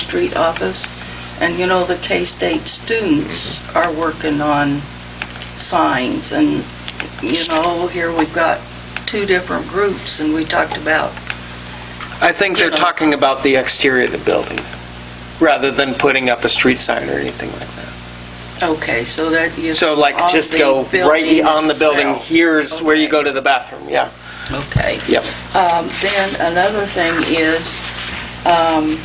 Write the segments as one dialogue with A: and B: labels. A: Street office. And you know, the K-State students are working on signs and, you know, here we've got two different groups and we talked about,
B: I think
A: You
B: they're
A: know.
B: talking about the exterior of the building, rather than putting up a street sign or anything like that.
A: okay, so that you.
B: So like,
A: on
B: just
A: the
B: go right e-,
A: building
B: on the building,
A: itself.
B: here's where you
A: Okay.
B: go to the bathroom, yeah.
A: Okay.
B: Yep.
A: Um, Then another thing is, um,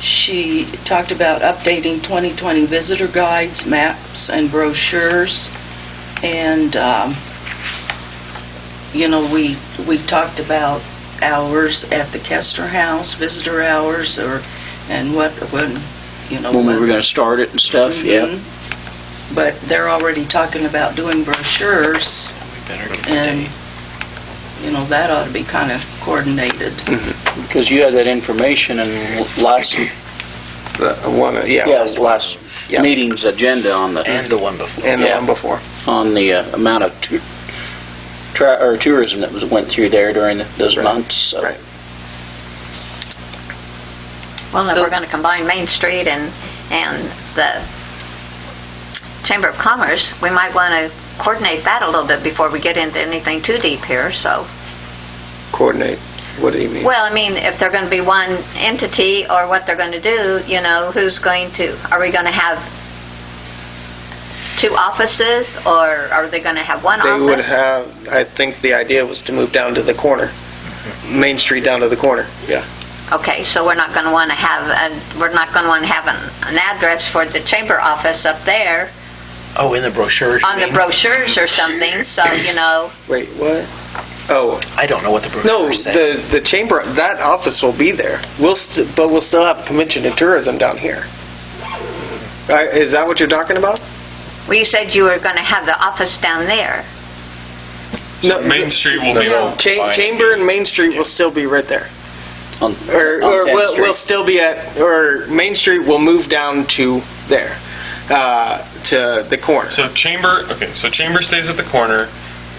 A: she talked about updating 2020 visitor guides, maps, and brochures. And, um, you know, we, we talked about hours at the Kester House, visitor hours, or, and what, when, you know.
C: when we were going to start it and stuff, yeah.
A: Mhm. But they're already talking about doing brochures. And, you know, that ought to be kind of coordinated.
C: Because you had that information in last,
B: Uh, One,
C: yeah, last
B: Yeah.
C: meeting's agenda on the,
D: And the one before.
B: And
C: the one
B: before.
C: on the uh, amount of tou- tra- or tourism that was, went through there during the- those months, so.
B: Right.
E: Well, if
A: So-
E: we're going to combine Main Street and, and the Chamber of Commerce, we might want to coordinate that a little bit before we get into anything too deep here, so.
B: Coordinate, what do you mean?
E: Well, I mean, if they're going to be one entity or what they're going to do, you know, who's going to, are we going to have two offices or are they going to have one
B: They would
E: office?
B: have, I think the idea was to move down to the corner, Main Street down to the corner, yeah.
E: Okay, so we're not going to want to have, a- we're not going to want to have an, an address for the chamber office up there
D: Oh, in the brochure. you
E: on the
D: mean?
E: brochures or something, so, you know,
B: Wait, what? Oh,
D: I don't know what the
B: no,
D: brochure said.
B: the, the chamber, that office will be there. We'll, st- but we'll still have convention and tourism down here. Uh, Is that what you're talking about?
E: well, you said you were going to have the office down there.
B: No,
F: Main Street will be
A: No.
F: owned
B: Cha-
F: by-
B: Chamber and Main Street will still be right there. Or, or
C: on- on 10th
B: we'll, we'll
C: Oh, Street.
B: still be at, or Main Street will move down to there, uh, to the corner.
F: So chamber, okay, so chamber stays at the corner,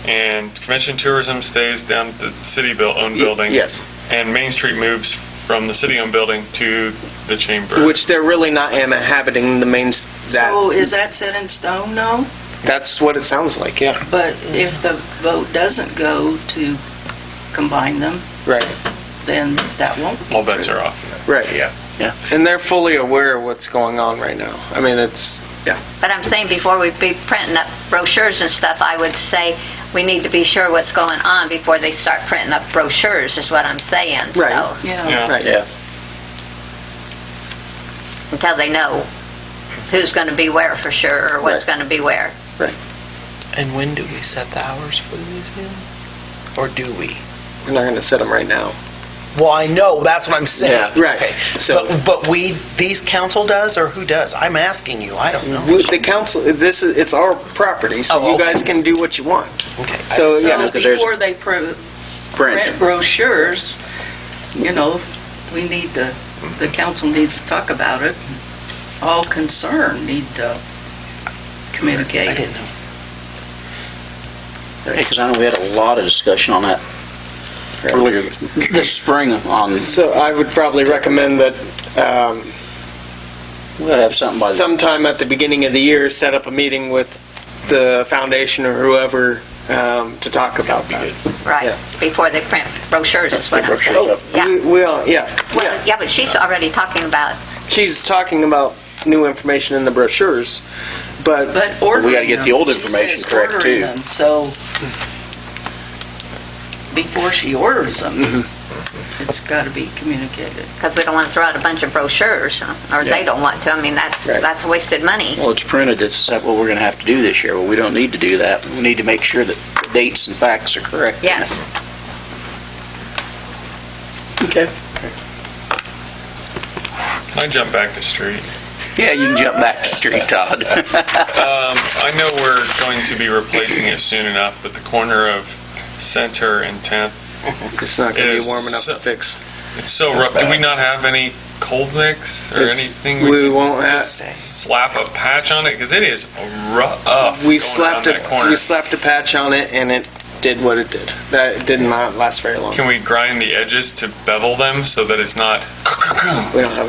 F: and convention tourism stays down at the city built, owned
B: Y-
F: building.
B: Yes,
F: And Main Street moves from the city owned building to the chamber.
B: which they're really not inhabiting the main, s-
A: So
B: that,
A: is that set in stone? No.
B: that's what it sounds like, yeah.
A: But if the vote doesn't go to combine them,
B: Right,
A: then that won't be
F: All bets
A: true.
F: are off.
B: right.
F: Yeah.
C: Yeah.
B: And they're fully aware of what's going on right now. I mean, it's,
E: But I'm saying before we be printing up brochures and stuff, I would say we need to be sure what's going on before they start printing up brochures, is what I'm saying.
B: Right.
E: So
A: Yeah.
F: Yeah.
B: right.
C: Yeah.
E: Until they know who's going to be where for sure, or what's going to be where.
D: And when do we set the hours for the museum? Or do we?
B: We're not going to set them right now.
D: Well, I know, that's what I'm saying.
B: Yeah, right.
D: Okay.
B: So-
D: But, but we, these council does, or who does? I'm asking you, I don't know.
B: The council, this is, it's our property, so
D: Oh,
B: you
D: okay.
B: guys can do what you want.
D: Okay.
B: So, yeah.
A: So
C: because there's-
A: before they pro-
C: Brent.
A: print brochures, you know, we need to, the council needs to talk about it. All concerned need to
D: I
A: communicate.
D: didn't know.
C: Because I know we had a lot of discussion on that earlier this spring on,
B: So I would probably recommend that um,
C: we'll have something by the,
B: sometime at the beginning of the year, set up a meeting with the foundation or whoever um, to talk about that.
E: Right. Before they print brochures, is what I'm saying.
C: brochures up.
E: Yeah.
B: We- We, all- yeah,
E: Well,
B: yeah.
E: yeah, but she's already talking about,
B: She's talking about new information in the brochures, but
A: But ordering
C: gotta get the
A: them,
C: old
A: she
C: information
A: says
C: correct,
A: ordering
C: too.
A: them, So before she orders them,
C: Mm-hmm.
A: it's got to be communicated.
E: because we don't want to throw out a bunch of brochures, or they don't want to. I mean, that's,
B: Right.
E: that's wasted money.
C: well, it's printed, it's set what we're going to have to do this year. Well, we don't need to do that. We need to make sure that the dates and facts are correct.
E: Yes.
C: Okay.
F: Can I jump back to street?
C: Yeah, you can jump back to street, Todd.
F: Um, I know we're going to be replacing it soon enough, but the corner of Center and 10th,
B: it's not going to
F: It
B: be
F: is
B: warm enough to
F: so-
B: fix.
F: it's so rough. Do we not have any cold mix or
B: It's-
F: anything?
B: We
F: could
B: won't have,
D: Just stay.
F: Slap a patch on it? Because it is rough.
B: we
F: going
B: slapped
F: around
B: a,
F: that corner.
B: we slapped a patch on it and it did what it did. That did not last very long.
F: Can we grind the edges to bevel them so that it's not
B: We don't have